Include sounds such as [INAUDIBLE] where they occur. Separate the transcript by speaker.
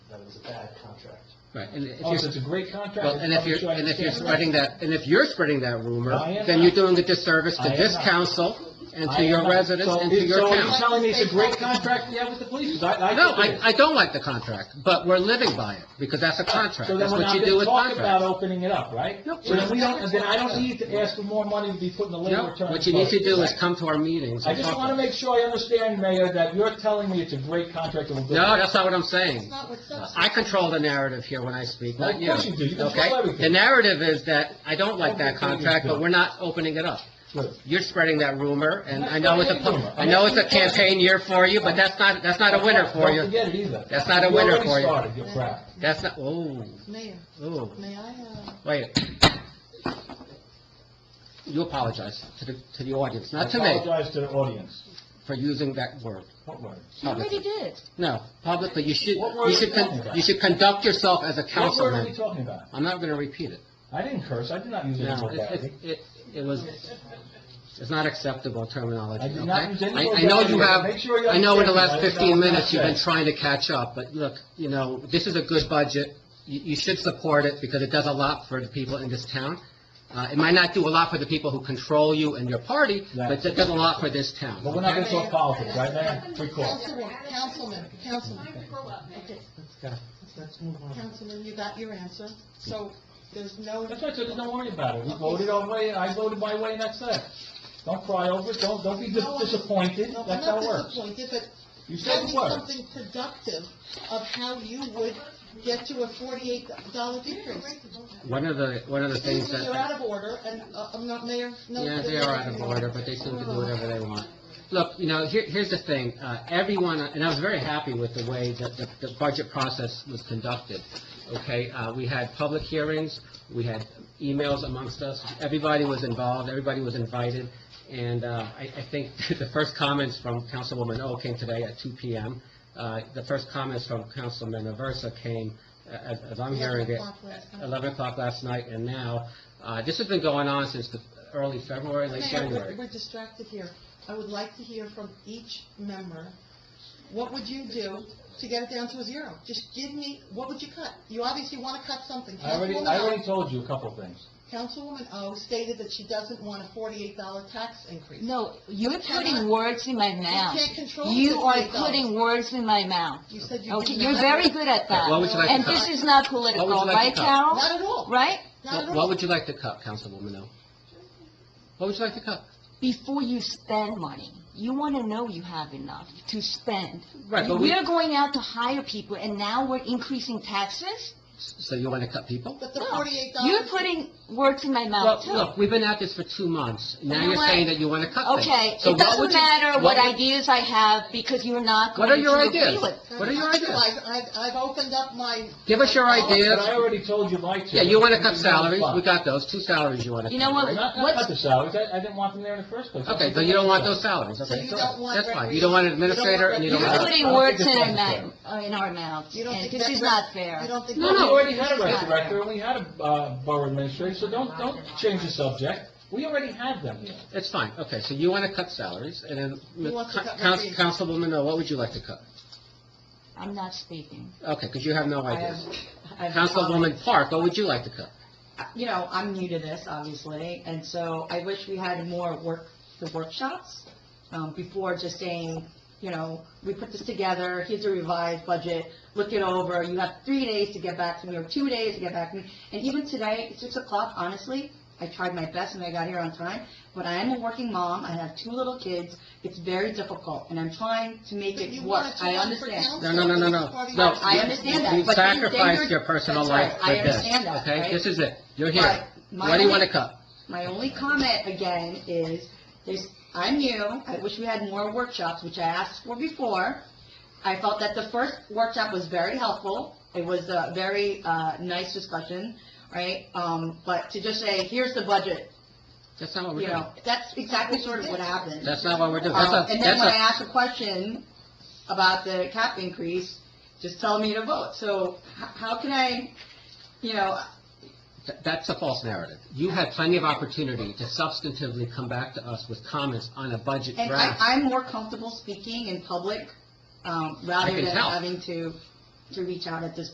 Speaker 1: it was a bad contract.
Speaker 2: Right, and if
Speaker 3: Oh, so it's
Speaker 2: you're,
Speaker 3: a great contract.
Speaker 2: well, and if you're, and if you're spreading that, and if you're spreading that rumor,
Speaker 3: I am
Speaker 2: then
Speaker 3: not.
Speaker 2: you're doing a disservice to
Speaker 3: I am
Speaker 2: this
Speaker 3: not.
Speaker 2: council and
Speaker 3: I
Speaker 2: to
Speaker 3: am
Speaker 2: your
Speaker 3: not.
Speaker 2: residents
Speaker 3: So
Speaker 2: and to
Speaker 3: it-
Speaker 2: your
Speaker 3: So
Speaker 2: town.
Speaker 3: you're telling me it's a great contract you have with the police? 'Cause I, I
Speaker 2: No,
Speaker 3: think it is.
Speaker 2: I, I don't like the contract, but we're living by it, because that's a contract.
Speaker 3: So then
Speaker 2: That's
Speaker 3: we're
Speaker 2: what
Speaker 3: not
Speaker 2: you do
Speaker 3: gonna
Speaker 2: with
Speaker 3: talk about
Speaker 2: contracts.
Speaker 3: opening it up, right?
Speaker 2: Nope.
Speaker 3: So then we don't, then I don't need to ask for more money to be put in the labor
Speaker 2: No,
Speaker 3: attorney's
Speaker 2: what you need to do is
Speaker 3: budget.
Speaker 2: come to our meetings
Speaker 3: I
Speaker 2: and
Speaker 3: just
Speaker 2: talk.
Speaker 3: want to
Speaker 2: about it.
Speaker 3: make sure I understand, Mayor, that you're telling me it's a great contract that will do.
Speaker 2: No, that's not what I'm
Speaker 4: That's
Speaker 2: saying.
Speaker 4: not what's
Speaker 2: I control the narrative here when I speak,
Speaker 3: Well,
Speaker 2: not
Speaker 3: of
Speaker 2: you.
Speaker 3: course you do. You control
Speaker 2: okay?
Speaker 3: everything.
Speaker 2: The narrative is that I don't like
Speaker 3: Everything
Speaker 2: that
Speaker 3: is
Speaker 2: contract, but
Speaker 3: good.
Speaker 2: we're not opening it up.
Speaker 3: Good.
Speaker 2: You're spreading that rumor, and I
Speaker 3: I'm
Speaker 2: know
Speaker 3: not
Speaker 2: it's a,
Speaker 3: spreading rumor.
Speaker 2: I know it's a
Speaker 3: I'm not-
Speaker 2: campaign year for you, but that's not, that's not a winner for
Speaker 3: Don't
Speaker 2: you.
Speaker 3: forget it either.
Speaker 2: That's not a winner for you.
Speaker 3: You already started your crap.
Speaker 2: That's not, oh,
Speaker 4: Mayor,
Speaker 2: oh,
Speaker 4: may I, uh,
Speaker 2: wait. You apologize to the, to the audience, not to
Speaker 3: I
Speaker 2: me,
Speaker 3: apologize to the audience.
Speaker 2: for using that word.
Speaker 3: What word?
Speaker 4: you already
Speaker 2: Publicly.
Speaker 4: did.
Speaker 2: No, publicly, you should,
Speaker 3: What word
Speaker 2: you should,
Speaker 3: are you talking
Speaker 2: con-
Speaker 3: about?
Speaker 2: you should conduct yourself as a
Speaker 3: What word are we
Speaker 2: councilman.
Speaker 3: talking about?
Speaker 2: I'm not gonna repeat it.
Speaker 3: I didn't curse, I did not use any
Speaker 2: No, it,
Speaker 3: vulgarity.
Speaker 2: it, it- it was, it's not acceptable terminology,
Speaker 3: I
Speaker 2: okay?
Speaker 3: did not use any
Speaker 2: I, I know you
Speaker 3: vulgarity.
Speaker 2: have,
Speaker 3: Make sure you
Speaker 2: I know in the
Speaker 3: understand that.
Speaker 2: last
Speaker 3: That
Speaker 2: fifteen
Speaker 3: was not
Speaker 2: minutes, you've been
Speaker 3: said.
Speaker 2: trying to catch up, but look, you know, this is a good budget. You, you should support it because it does a lot for the people in this town. Uh, it might not do a lot for the people who control you and your party, but it does a lot for this town,
Speaker 3: But we're not
Speaker 2: okay?
Speaker 3: going to talk politics, right, Mayor? Free call.
Speaker 4: Councilman, Councilman, Councilman. Okay,
Speaker 1: Let's move on.
Speaker 4: Councilman, you got your answer, so there's no,
Speaker 3: That's right, so just don't worry about it. We voted our way, I voted my way, and that's it. Don't cry over it, don't, don't be dis-
Speaker 4: No, I'm-
Speaker 3: disappointed,
Speaker 4: no, I'm
Speaker 3: that's how
Speaker 4: not
Speaker 3: it works.
Speaker 4: disappointed, but
Speaker 3: You said
Speaker 4: tell me
Speaker 3: the word.
Speaker 4: something productive of how you would get to a forty-eight dollar decrease.
Speaker 2: One of the, one of the
Speaker 4: Excuse
Speaker 2: things
Speaker 4: me, you're
Speaker 2: that,
Speaker 4: out of order, and uh, I'm not mayor, no.
Speaker 2: yeah, they are out of order, but they seem to do whatever they want. Look, you know, here, here's the thing, uh, everyone, and I was very happy with the way that the, the budget process was conducted. Okay, uh, we had public hearings, we had emails amongst us, everybody was involved, everybody was invited. And, uh, I, I think [LAUGHS] the first comments from Councilwoman O came today at two PM. Uh, the first comments from Councilman Aversa came, uh, as, as I'm hearing it,
Speaker 4: 11 o'clock last night.
Speaker 2: eleven o'clock last night and now. Uh, this has been going on since the early February, late
Speaker 4: Mayor, we're-
Speaker 2: January.
Speaker 4: We're distracted here. I would like to hear from each member, what would you do to get it down to a zero? Just give me, what would you cut? You obviously want to cut something.
Speaker 3: I already,
Speaker 4: Councilwoman
Speaker 3: I
Speaker 4: O-
Speaker 3: already told you a couple of things.
Speaker 4: Councilwoman O stated that she doesn't want a forty-eight dollar tax increase.
Speaker 5: No, you're
Speaker 4: cannot-
Speaker 5: putting words in my mouth.
Speaker 4: can't control
Speaker 5: You
Speaker 4: the
Speaker 5: are
Speaker 4: state dollars.
Speaker 5: putting words in my mouth.
Speaker 4: You said you
Speaker 5: Okay,
Speaker 4: didn't
Speaker 5: you're
Speaker 4: have-
Speaker 5: very good at that.
Speaker 2: What would you like to
Speaker 5: And
Speaker 2: cut?
Speaker 5: this is not political,
Speaker 2: What would you like
Speaker 5: right,
Speaker 2: to
Speaker 5: Carol?
Speaker 4: Not at all.
Speaker 5: Right?
Speaker 4: Not at
Speaker 2: What-
Speaker 4: all.
Speaker 2: What would you like to cut, Councilwoman O? What would you like to cut?
Speaker 5: Before you spend money, you want to know you have enough to spend.
Speaker 2: Right, but we-
Speaker 5: We're going out to hire people, and now we're increasing taxes?
Speaker 2: So you want to cut people?
Speaker 4: But the
Speaker 5: No.
Speaker 4: forty-eight dollars.
Speaker 5: You're putting words in my
Speaker 6: Uh,
Speaker 2: Well,
Speaker 5: mouth, too.
Speaker 2: look, we've been at this for two months. Now
Speaker 5: You know
Speaker 2: you're
Speaker 5: what?
Speaker 2: saying that you want to cut things.
Speaker 5: Okay,
Speaker 2: So
Speaker 5: it
Speaker 2: what would
Speaker 5: doesn't
Speaker 2: you-
Speaker 5: matter what
Speaker 2: would-
Speaker 5: ideas I have, because you're not
Speaker 2: What
Speaker 5: going
Speaker 2: are
Speaker 5: to
Speaker 2: your
Speaker 5: agree
Speaker 2: ideas?
Speaker 5: with.
Speaker 2: What are your ideas?
Speaker 4: I've, I've opened up my,
Speaker 2: Give us your
Speaker 3: But I
Speaker 2: ideas.
Speaker 3: already told you my two.
Speaker 2: Yeah, you want to cut
Speaker 3: It's
Speaker 2: salaries,
Speaker 3: fine.
Speaker 2: we got those, two salaries you want to cut.
Speaker 5: You know what?
Speaker 3: I'm not going to
Speaker 5: What's-
Speaker 3: cut the salaries, I, I didn't want them there in the first place.
Speaker 2: Okay, so you don't want those salaries,
Speaker 4: so
Speaker 2: okay?
Speaker 4: you don't want.
Speaker 2: That's fine,
Speaker 4: recre-
Speaker 2: you don't want an administrator and you don't
Speaker 5: You're
Speaker 2: want...
Speaker 4: recre-
Speaker 5: putting
Speaker 3: I don't think
Speaker 5: words
Speaker 3: it's
Speaker 5: in our
Speaker 3: necessary.
Speaker 5: mouth, uh, in our mouths,
Speaker 4: You don't
Speaker 5: and
Speaker 4: think
Speaker 5: this
Speaker 4: that
Speaker 5: is
Speaker 4: rec-
Speaker 5: not fair.
Speaker 4: You don't think.
Speaker 2: No,
Speaker 4: that-
Speaker 3: We
Speaker 2: no.
Speaker 3: already had a rec director, and we had a uh, borough administrator, so don't, don't change the subject. We already had them here.
Speaker 2: It's fine, okay, so you want to cut salaries, and then,
Speaker 4: Who wants to
Speaker 2: Coun-
Speaker 4: cut recreation?
Speaker 2: Councilwoman O, what would you like to cut?
Speaker 5: I'm not speaking.
Speaker 2: Okay, because you have no
Speaker 6: I have-
Speaker 2: ideas.
Speaker 6: I have
Speaker 2: Councilwoman Park, what would you like to cut?
Speaker 6: comments. You know, I'm new to this, obviously, and so I wish we had more work, the workshops, um, before just saying, you know, we put this together, here's a revised budget, look it over, you have three days to get back to me, or two days to get back to me. And even today, at six o'clock, honestly, I tried my best and I got here on time, but I am a working mom, I have two little kids, it's very difficult, and I'm trying to make
Speaker 4: But
Speaker 6: it
Speaker 4: you
Speaker 6: work,
Speaker 4: wanted to
Speaker 6: I
Speaker 4: run for
Speaker 6: understand.
Speaker 4: council
Speaker 2: No, no, no, no,
Speaker 4: for
Speaker 2: no.
Speaker 4: this party.
Speaker 2: No,
Speaker 6: I understand that,
Speaker 2: You
Speaker 6: but then- then
Speaker 2: sacrificed
Speaker 6: you're-
Speaker 2: your personal
Speaker 6: that's
Speaker 2: life
Speaker 6: right,
Speaker 2: for
Speaker 6: I
Speaker 2: this,
Speaker 6: understand that,
Speaker 2: okay?
Speaker 6: right?
Speaker 2: This is it, you're here.
Speaker 6: Right. My
Speaker 2: What do you
Speaker 6: only-
Speaker 2: want to cut?
Speaker 6: My only comment again is, there's, I'm new, I wish we had more workshops, which I asked for before. I felt that the first workshop was very helpful, it was a very, uh, nice discussion, right? Um, but to just say, here's the budget,
Speaker 2: That's not what we're
Speaker 6: you
Speaker 2: doing.
Speaker 6: know, that's exactly sort of what happened.
Speaker 2: That's not what we're doing.
Speaker 6: Um,
Speaker 2: That's a,
Speaker 6: And then
Speaker 2: that's
Speaker 6: when I
Speaker 2: a,
Speaker 6: asked a question about the cap increase, just tell me to vote, so h- how can I, you know,
Speaker 2: th- that's a false narrative. You had plenty of opportunity to substantively come back to us with comments on a budget
Speaker 6: And I,
Speaker 2: draft.
Speaker 6: I'm more comfortable speaking in public, um, rather
Speaker 2: can
Speaker 6: than
Speaker 2: tell.
Speaker 6: having to, to reach out at this